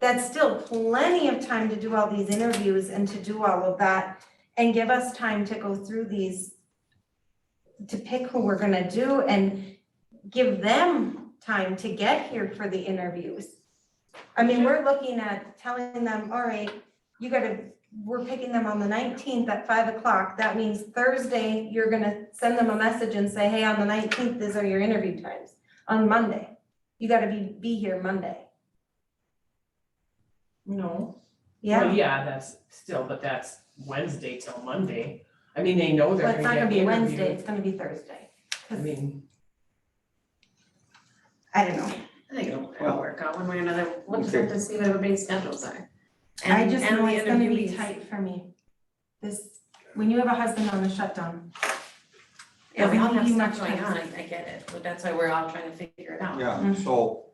that's still plenty of time to do all these interviews and to do all of that and give us time to go through these to pick who we're gonna do and give them time to get here for the interviews. I mean, we're looking at telling them, all right, you gotta, we're picking them on the nineteenth at five o'clock. That means Thursday, you're gonna send them a message and say, hey, on the nineteenth, these are your interview times. On Monday, you gotta be, be here Monday. No. Yeah, Well, yeah, that's still, but that's Wednesday till Monday. I mean, they know but they're it's not gonna gonna get the be Wednesday, interview. it's gonna be Thursday. I mean, I don't know. I think it'll, it'll work out one way or another, we'll just have to see what everybody's schedules are. I And- just and know the it's gonna be interviewees. tight for me. This, when you have a husband on a shutdown, Yeah, we all have Everything stuff you going on, mentioned. I get it, but that's why we're all trying to figure it out. Yeah, Mhm. so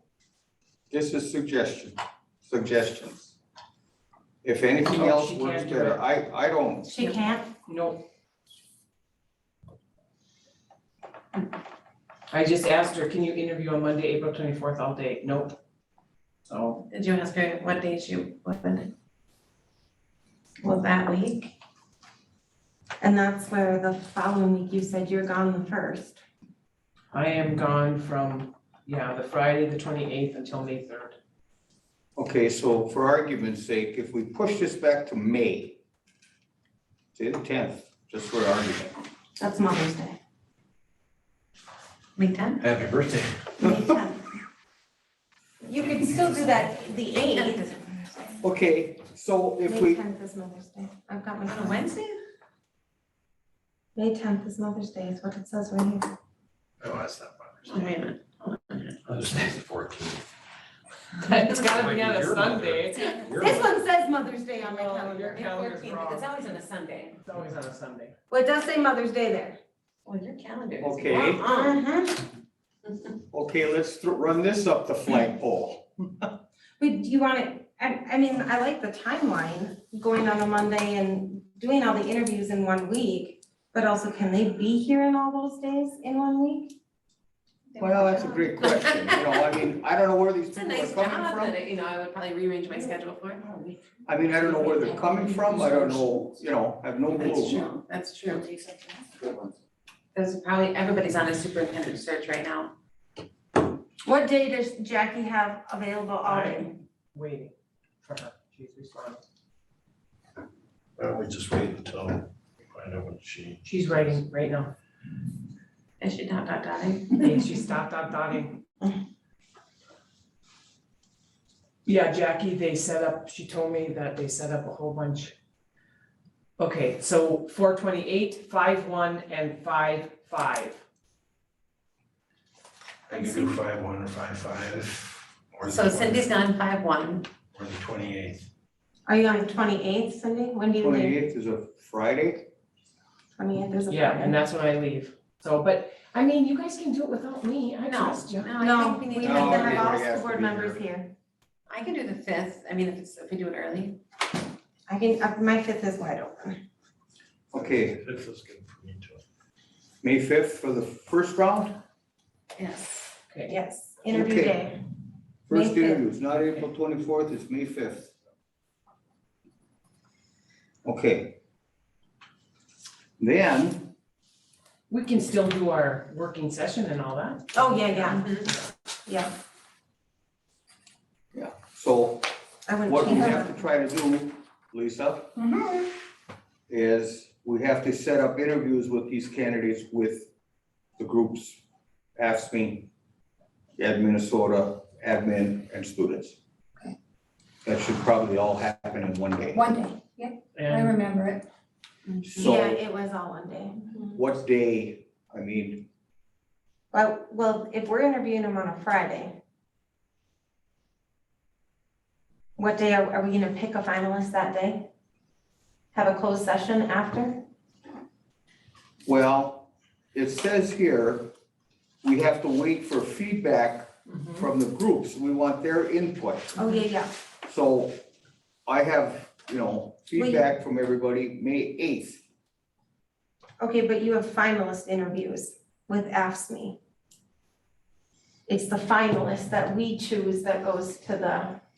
this is suggestion, suggestions. If anything Oh, else she works can't do it. better, I, I don't, she Yeah. can't, no. I just asked her, can you interview on Monday, April twenty-fourth all day? Nope. So, Did you ask her what day she opened? Well, that week, and that's where the following week you said you're gone the first. I am gone from, yeah, the Friday, the twenty-eighth until May third. okay, so for argument's sake, if we push this back to May, say the tenth, just for argument. That's Mother's Day. May tenth? Happy birthday. May 10th. You could still do that the eighth. Okay, so if May we, tenth is Mother's Day. I've got my. On a Wednesday? May tenth is Mother's Day is what it says right here. Oh, that's not Oh, Wait a minute. Mother's Day is the fourteenth. It's gotta be on Might a be your mother. Sunday. This one says Mother's Day on my No, calendar. your calendar's wrong. It's always on a Sunday. It's always on a Sunday. Well, it does say Mother's Day there. Well, your calendar is. Okay. wrong. Uh-huh. okay, let's thro- run this up the Mm-hmm. flagpole. But do you want it, I, I mean, I like the timeline, going on a Monday and doing all the interviews in one week. But also, can they be here in all those days in one week? Well, that's a great question, you know, I mean, I don't know where these It's a people are nice job coming from. that, I- you know, I would probably rearrange my schedule for. I mean, I don't know where they're coming from, I don't know, you know, I have no clue. That's true, that's true. There's probably, everybody's on a superintendent search right now. What day does Jackie have available all day? I'm waiting for her. She's responding. Why don't we just wait until we find out what she, She's writing right now. I should dot dot dotting. Yeah, she stopped dot dotting. Yeah, Jackie, they set up, she told me that they set up a whole bunch. Okay, so four twenty-eight, five one, and five five. I can do five one or five five, or the So twenty, Cindy's gone five one. or the twenty-eighth. Are you on the twenty-eighth, Cindy? When do you leave? Twenty-eighth is a Friday, Twenty-eighth is a Friday. Yeah, and that's when I leave. So, but, I mean, you guys can do it without me. I No, trust you. No, I No, we think we need, need to No, have everybody all has school to board be members here. I can do the fifth, I mean, if it's, if we do it early. I can, uh, my fifth is wide open. okay, Fifth is good for me too. May fifth for the first round, Yes. Okay, Yes, interview Okay. day. May first 5th. interviews, not April twenty-fourth, it's May fifth. Okay. Then, we can still do our working session and all that. Oh, yeah, yeah, Mhm. yeah. so I wouldn't what we change that. have to try to do, Lisa, Mhm. is we have to set up interviews with these candidates with the groups, AFSMI, Ed Minnesota, admin, and students. That should probably all happen in one day. One day, yeah, I And remember it. Yeah, So it was all one day. what day, I mean, Well, well, if we're interviewing them on a Friday, what day are, are we gonna pick a finalist that day? Have a closed session after? well, it says here, we have to wait for feedback Mhm. from the groups. We want their input. Oh, yeah, yeah. So I have, you know, feedback from everybody, May eighth. Okay, but you have finalist interviews with AFSMI. It's the finalist that we choose that goes to the